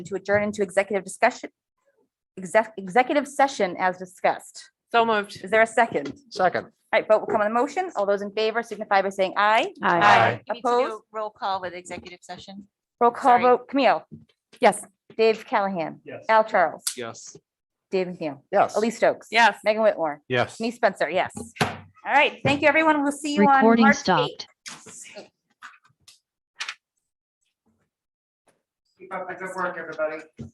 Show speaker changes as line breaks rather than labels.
to adjourn into executive discussion, exec, executive session as discussed.
So moved.
Is there a second?
Second.
All right, vote will come on the motion. All those in favor signify by saying aye.
Aye.
We need to do a
Opposed?
Roll call with executive session.
Roll call
Sorry.
vote, Camille,
Yes.
Dave Callahan,
Yes.
Al Charles,
Yes.
Dave McNeil,
Yes.
Elise Stokes.
Yes.
Megan Whitmore,
Yes.
me Spencer, yes. All right, thank you, everyone. We'll see you on
Recording
March
stopped.
8th.
Keep up the good work, everybody.